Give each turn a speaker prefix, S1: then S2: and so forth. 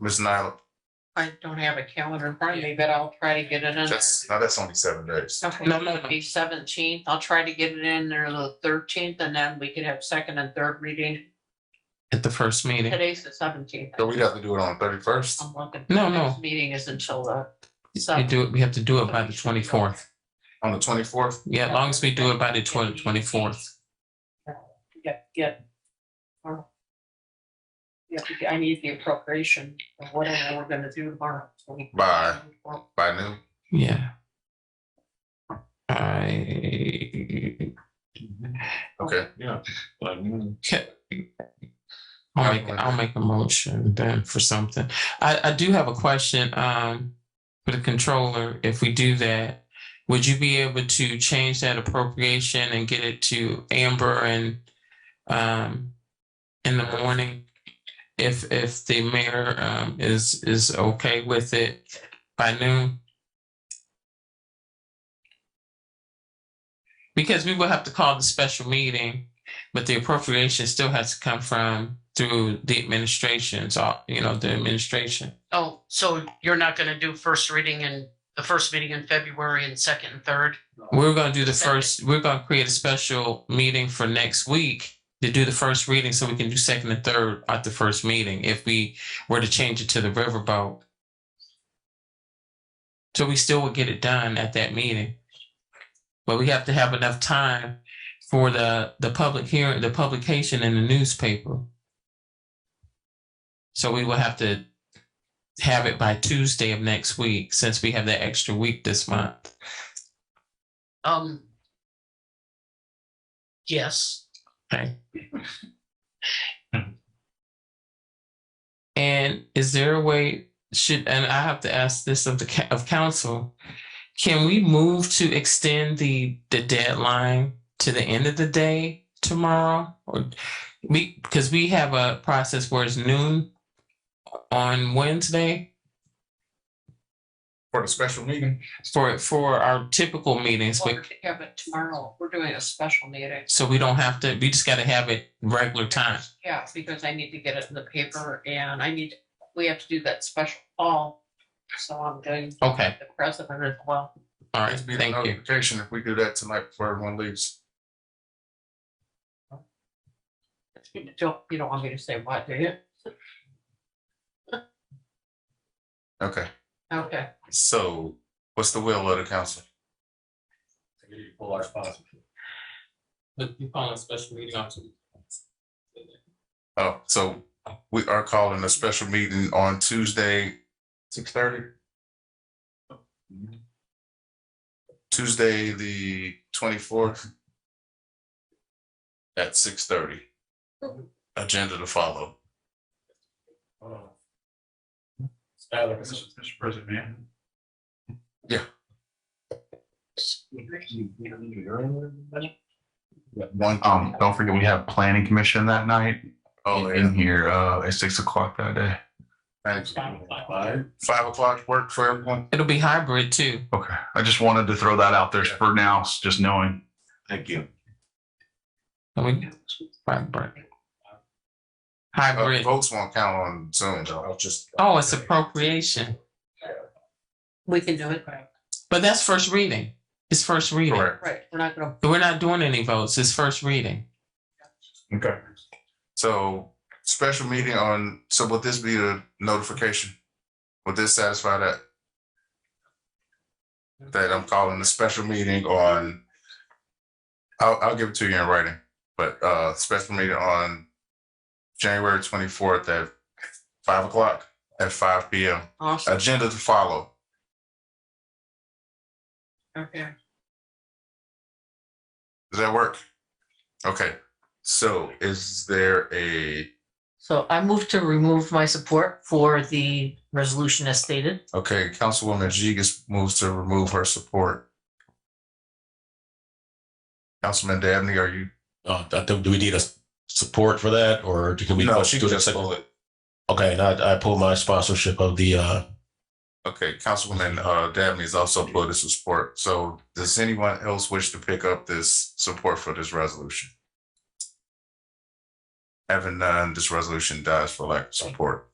S1: Ms. Nyla,
S2: I don't have a calendar in front of me, but I'll try to get it in there.
S1: that's, now that's only seven days.
S2: Okay,
S3: No,
S2: it
S3: no, no.
S2: would be seventeenth. I'll try to get it in there the thirteenth and then we could have second and third reading.
S3: at the first meeting.
S2: Today's the seventeenth.
S1: So we'd have to do it on thirty-first.
S2: I'm looking.
S3: No, no.
S2: Next Meeting is until the,
S3: You do it, we have to do it by the twenty-fourth.
S1: On the twenty-fourth,
S3: Yeah, as long as we do it by the twenty, twenty-fourth.
S2: get, get. or- Yeah, I need the appropriation of whatever we're gonna do tomorrow. so we-
S1: Bye. by noon,
S3: Yeah. I,
S1: okay?
S4: Yeah. Like, mm,
S3: I'll make, I'll make a motion then for something. I, I do have a question, um, for the controller, if we do that. Would you be able to change that appropriation and get it to Amber and, um, in the morning? If, if the mayor, um, is, is okay with it by noon? Because we will have to call the special meeting but the appropriation still has to come from through the administration, so, you know, the administration.
S5: Oh, so you're not gonna do first reading in, the first meeting in February and second and third?
S3: We're gonna do the first, we're gonna create a special meeting for next week to do the first reading, so we can do second and third at the first meeting, if we were to change it to the riverboat. So we still would get it done at that meeting. But we have to have enough time for the, the public hearing, the publication in the newspaper. So we will have to have it by Tuesday of next week, since we have that extra week this month.
S5: Um. Yes,
S3: And is there a way, should, and I have to ask this of the, ca- of council, can we move to extend the, the deadline to the end of the day tomorrow? Or we, because we have a process where it's noon on Wednesday
S1: For the special meeting,
S3: for, for our typical meetings,
S2: Well,
S3: but,
S2: we have it tomorrow. We're doing a special meeting.
S3: so we don't have to, we just gotta have it regular time.
S2: Yeah, because I need to get it in the paper and I need, we have to do that special call. So I'm doing
S3: Okay,
S2: the president as well.
S3: all right,
S1: it'd be the
S3: thank you.
S1: notification if we do that tonight before everyone leaves.
S2: You Don't, you don't want me to say what, do you?
S1: Okay,
S2: Okay.
S1: so what's the will of the council?
S4: full life possible.
S3: But you call a special meeting on Tuesday.
S1: Oh, so we are calling a special meeting on Tuesday, six thirty? Tuesday, the twenty-fourth at six thirty. Agenda to follow.
S4: Oh. Alex, Mr. President, man.
S1: Yeah. One,
S6: Um, don't forget, we have planning commission that night
S1: oh,
S6: in
S1: yeah,
S6: here, uh, at six o'clock that day.
S1: thanks.
S4: Five.
S1: Five o'clock work for everyone?
S3: It'll be hybrid too.
S6: Okay, I just wanted to throw that out there
S1: Yeah.
S6: for now, just knowing.
S1: Thank you.
S3: Let me, hybrid. Hybrid.
S1: Votes Uh, won't count on Zoom, though. I'll just.
S3: Oh, it's appropriation,
S2: We can do it.
S3: but that's first reading. It's first reading.
S1: Correct.
S2: Right, we're not gonna,
S3: We're not doing any votes. It's first reading.
S1: Okay. So special meeting on, so would this be the notification? Would this satisfy that? That I'm calling a special meeting on, I'll, I'll give it to you in writing, but, uh, special meeting on January twenty-fourth at five o'clock, at five P M.
S2: awesome,
S1: Agenda to follow.
S2: okay.
S1: Does that work? Okay, so is there a,
S5: so I move to remove my support for the resolution as stated.
S1: okay, Councilwoman Jigus moves to remove her support. Councilman Dabney, are you?
S7: Uh, that- do do we need a s- support for that or do- can we?
S1: No,
S7: vote
S1: she
S7: do
S1: can
S7: it
S1: just
S7: second?
S1: pull it.
S7: Okay, and I, I pull my sponsorship of the, uh,
S1: Okay, Councilwoman, uh, Dabney is also for this support. So does anyone else wish to pick up this support for this resolution? Having none, this resolution dies for lack of support.